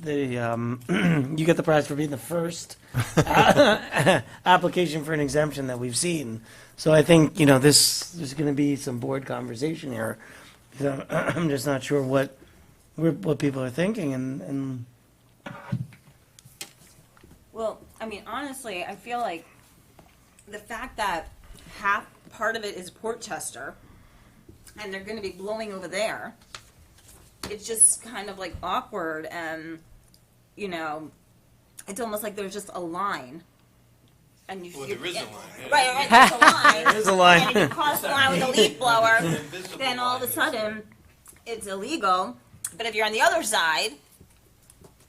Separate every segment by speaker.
Speaker 1: the, um, you get the prize for being the first uh, application for an exemption that we've seen. So I think, you know, this, there's going to be some board conversation here. So I'm just not sure what, we're- what people are thinking and, and
Speaker 2: Well, I mean, honestly, I feel like the fact that half part of it is Portchester, and they're going to be blowing over there. It's just kind of like awkward, and you know, it's almost like there's just a line. And you,
Speaker 3: Well,
Speaker 2: you-
Speaker 3: there is a line, yeah.
Speaker 2: Right, right, there's a line.
Speaker 1: there's a line.
Speaker 2: And if you cross the line with a leaf blower,
Speaker 3: Invisible
Speaker 2: then all of a
Speaker 3: line is-
Speaker 2: sudden, it's illegal. But if you're on the other side,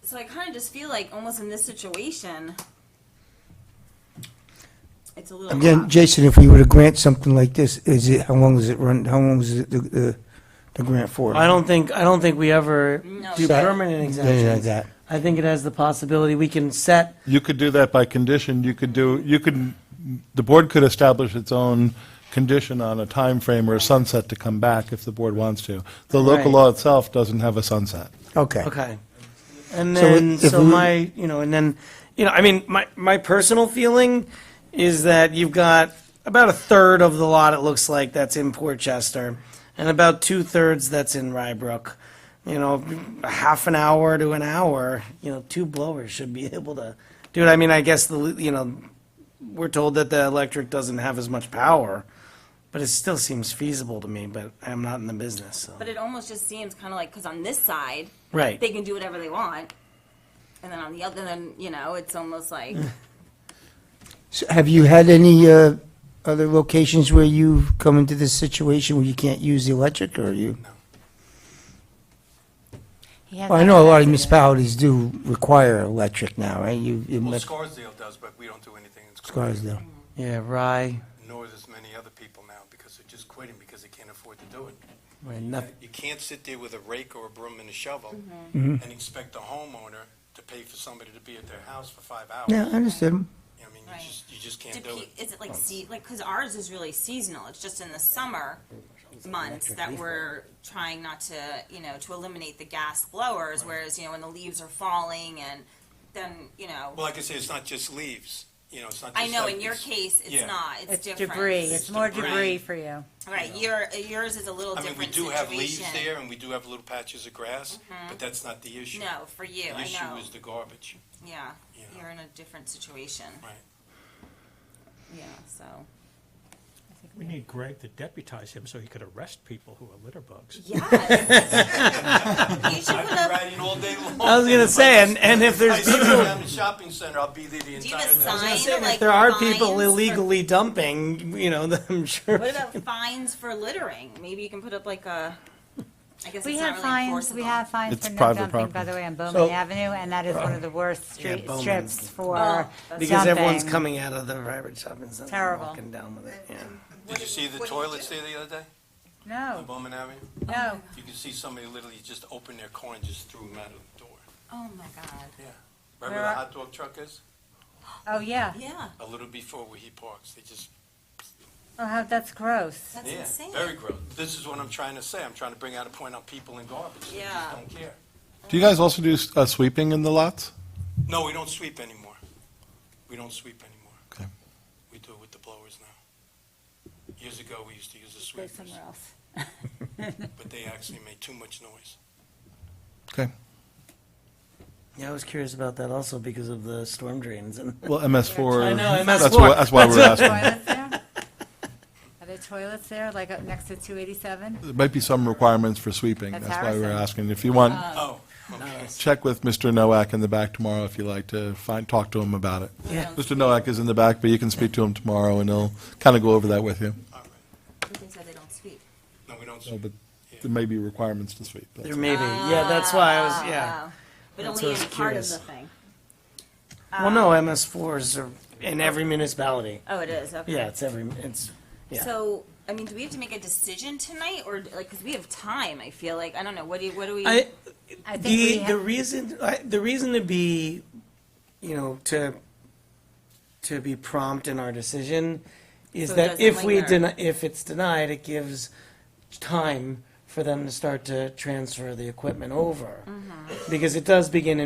Speaker 2: so I kind of just feel like almost in this situation, it's a little.
Speaker 4: Again,
Speaker 2: off.
Speaker 4: Jason, if we were to grant something like this, is it, how long does it run, how long is it, the, the, the grant for?
Speaker 1: I don't think, I don't think we ever
Speaker 2: No.
Speaker 1: do
Speaker 2: Set-
Speaker 1: permanent
Speaker 4: Anything like
Speaker 1: exemptions.
Speaker 4: that.
Speaker 1: I think it has the possibility, we can set,
Speaker 5: You could do that by condition, you could do, you could, the board could establish its own condition on a time frame or a sunset to come back if the board wants to. The local
Speaker 1: Right.
Speaker 5: law itself doesn't have a sunset.
Speaker 4: Okay.
Speaker 1: okay. And
Speaker 4: So
Speaker 1: then,
Speaker 4: if- if
Speaker 1: so
Speaker 4: we-
Speaker 1: my, you know, and then, you know, I mean, my, my personal feeling is that you've got about a third of the lot, it looks like, that's in Portchester, and about two-thirds that's in Rybrook. You know, a half an hour to an hour, you know, two blowers should be able to do it. I mean, I guess the, you know, we're told that the electric doesn't have as much power, but it still seems feasible to me, but I'm not in the business, so.
Speaker 2: But it almost just seems kind of like because on this side,
Speaker 1: Right.
Speaker 2: they can do whatever they want, and then on the other, then you know, it's almost like
Speaker 4: So Have you had any, uh, other locations where you've come into this situation where you can't use the electric, or you? Well, I know a lot of municipalities do require electric now, right? You, you
Speaker 3: Well,
Speaker 4: must,
Speaker 3: Scarsdale does, but we don't do anything in Scarsdale.
Speaker 4: Scarsdale.
Speaker 1: Yeah, Rye,
Speaker 3: Nor does many other people now, because they're just quitting because they can't afford to do it.
Speaker 1: right, nothing,
Speaker 3: You can't sit there with a rake or a broom and a shovel
Speaker 2: Mm-hmm.
Speaker 1: Mm-hmm.
Speaker 3: and expect the homeowner to pay for somebody to be at their house for five hours.
Speaker 4: Yeah, I understand.
Speaker 3: I mean,
Speaker 2: Right.
Speaker 3: you just, you just
Speaker 2: Do
Speaker 3: can't do
Speaker 2: pe-
Speaker 3: it.
Speaker 2: is it like sea, like, cause ours is really seasonal, it's just in the summer months that we're trying not to, you know, to eliminate the gas blowers, whereas, you know, when the leaves are falling and then, you know,
Speaker 3: Well, like I say, it's not just leaves, you know, it's not
Speaker 2: I
Speaker 3: just
Speaker 2: know
Speaker 3: like
Speaker 2: in your
Speaker 3: it's-
Speaker 2: case, it's
Speaker 3: yeah.
Speaker 2: not, it's
Speaker 6: It's
Speaker 2: different.
Speaker 6: debris, it's more
Speaker 3: Debris.
Speaker 6: debris for you.
Speaker 2: Right, your, yours is a little
Speaker 3: I mean,
Speaker 2: different
Speaker 3: we
Speaker 2: situation. Mm-hmm.
Speaker 3: do have leaves there and we do have little patches of grass, but that's not the issue.
Speaker 2: No, for you,
Speaker 3: The
Speaker 2: I
Speaker 3: issue
Speaker 2: know,
Speaker 3: is the garbage.
Speaker 2: yeah,
Speaker 3: Yeah.
Speaker 2: you're in a different situation.
Speaker 3: Right.
Speaker 2: Yeah, so,
Speaker 7: We need Greg to deputize him so he could arrest people who are litter bugs.
Speaker 2: yes. You should
Speaker 3: I've
Speaker 2: put
Speaker 3: been
Speaker 2: a,
Speaker 3: riding all day long.
Speaker 1: I was gonna say, and, and if
Speaker 3: I
Speaker 1: there's
Speaker 3: sit
Speaker 1: people,
Speaker 3: around the shopping center, I'll be there the
Speaker 2: do you have
Speaker 3: entire
Speaker 2: a
Speaker 3: day.
Speaker 2: sign,
Speaker 1: if
Speaker 2: like
Speaker 1: there are people
Speaker 2: fines for-
Speaker 1: illegally dumping, you know, then I'm sure.
Speaker 2: What about fines for littering? Maybe you can put up like a, I guess
Speaker 6: We
Speaker 2: it's not
Speaker 6: have
Speaker 2: really
Speaker 6: fines,
Speaker 2: enforceable.
Speaker 6: we have fines
Speaker 5: It's
Speaker 6: for no
Speaker 5: private
Speaker 6: dumping, by
Speaker 5: property.
Speaker 6: the way, on Bowman
Speaker 4: So-
Speaker 6: Avenue, and that is one of the worst
Speaker 1: Yeah,
Speaker 6: street
Speaker 1: Bowman's
Speaker 6: strips for
Speaker 2: Oh, that's-
Speaker 1: Because everyone's
Speaker 6: dumping.
Speaker 1: coming out of the Robert Shopping Center, and
Speaker 6: Terrible.
Speaker 1: walking down with it, yeah.
Speaker 3: Did you see the
Speaker 2: What do you
Speaker 3: toilets there the other day on
Speaker 6: No,
Speaker 3: Bowman Avenue?
Speaker 6: no.
Speaker 3: You can see somebody literally just opened their car and just threw them out of the door.
Speaker 2: Oh my god.
Speaker 3: Right where the
Speaker 6: Where-
Speaker 3: hot dog truck is?
Speaker 6: Oh, yeah.
Speaker 2: Yeah,
Speaker 3: A little before where he parks, they just,
Speaker 6: Oh, how, that's gross.
Speaker 2: that's
Speaker 3: yeah,
Speaker 2: insane.
Speaker 3: very gross. This is what I'm trying to say. I'm trying to bring out a point on people and garbage. They
Speaker 2: Yeah.
Speaker 3: just don't care.
Speaker 5: Do you guys also do s- uh, sweeping in the lots?
Speaker 3: No, we don't sweep anymore. We don't sweep anymore.
Speaker 5: Okay.
Speaker 3: We do it with the blowers now. Years ago, we used to use the
Speaker 6: Go
Speaker 3: sweepers,
Speaker 6: somewhere else.
Speaker 3: but they actually made too much noise.
Speaker 5: Okay.
Speaker 1: Yeah, I was curious about that also because of the storm drains and.
Speaker 5: Well, MS4.
Speaker 1: I know,
Speaker 5: That's
Speaker 1: MS4.
Speaker 5: why, that's why we're asking.
Speaker 6: Toilets there? Are there toilets there, like up next to 287?
Speaker 5: There might be some requirements for sweeping,
Speaker 6: That's
Speaker 5: that's why we're
Speaker 6: Harrison.
Speaker 5: asking. If you want,
Speaker 3: Oh,
Speaker 5: check with Mr. Nowak in the back tomorrow if you like to find, talk to him about it.
Speaker 1: Yeah.
Speaker 5: Mr. Nowak is in the back, but you can speak to him tomorrow, and he'll kind of go over that with you.
Speaker 3: all right.
Speaker 2: They said they don't speak.
Speaker 3: No, we don't
Speaker 5: No,
Speaker 3: sweep.
Speaker 5: but there may be requirements to sweep. that's
Speaker 1: There
Speaker 5: all.
Speaker 1: may be,
Speaker 2: Ah,
Speaker 1: yeah, that's why I was, yeah.
Speaker 2: But
Speaker 1: That's
Speaker 2: only
Speaker 1: what I
Speaker 2: in
Speaker 1: was
Speaker 2: part of
Speaker 1: curious.
Speaker 2: the thing.
Speaker 1: Well,
Speaker 2: Ah.
Speaker 1: no, MS fours are in every municipality.
Speaker 2: Oh, it is, okay.
Speaker 1: Yeah, it's every, it's, yeah.
Speaker 2: So, I mean, do we have to make a decision tonight or like, cause we have time, I feel like. I don't know, what do you, what do we?
Speaker 1: I,
Speaker 6: I think we
Speaker 1: The, the
Speaker 6: have,
Speaker 1: reason, I- the reason to be, you know, to, to be prompt in our decision is
Speaker 2: So it
Speaker 1: that
Speaker 2: doesn't
Speaker 1: if we
Speaker 2: linger.
Speaker 1: deny, if it's denied, it gives
Speaker 2: Mm-hmm.
Speaker 1: time for them to start to transfer the equipment over. Because it does begin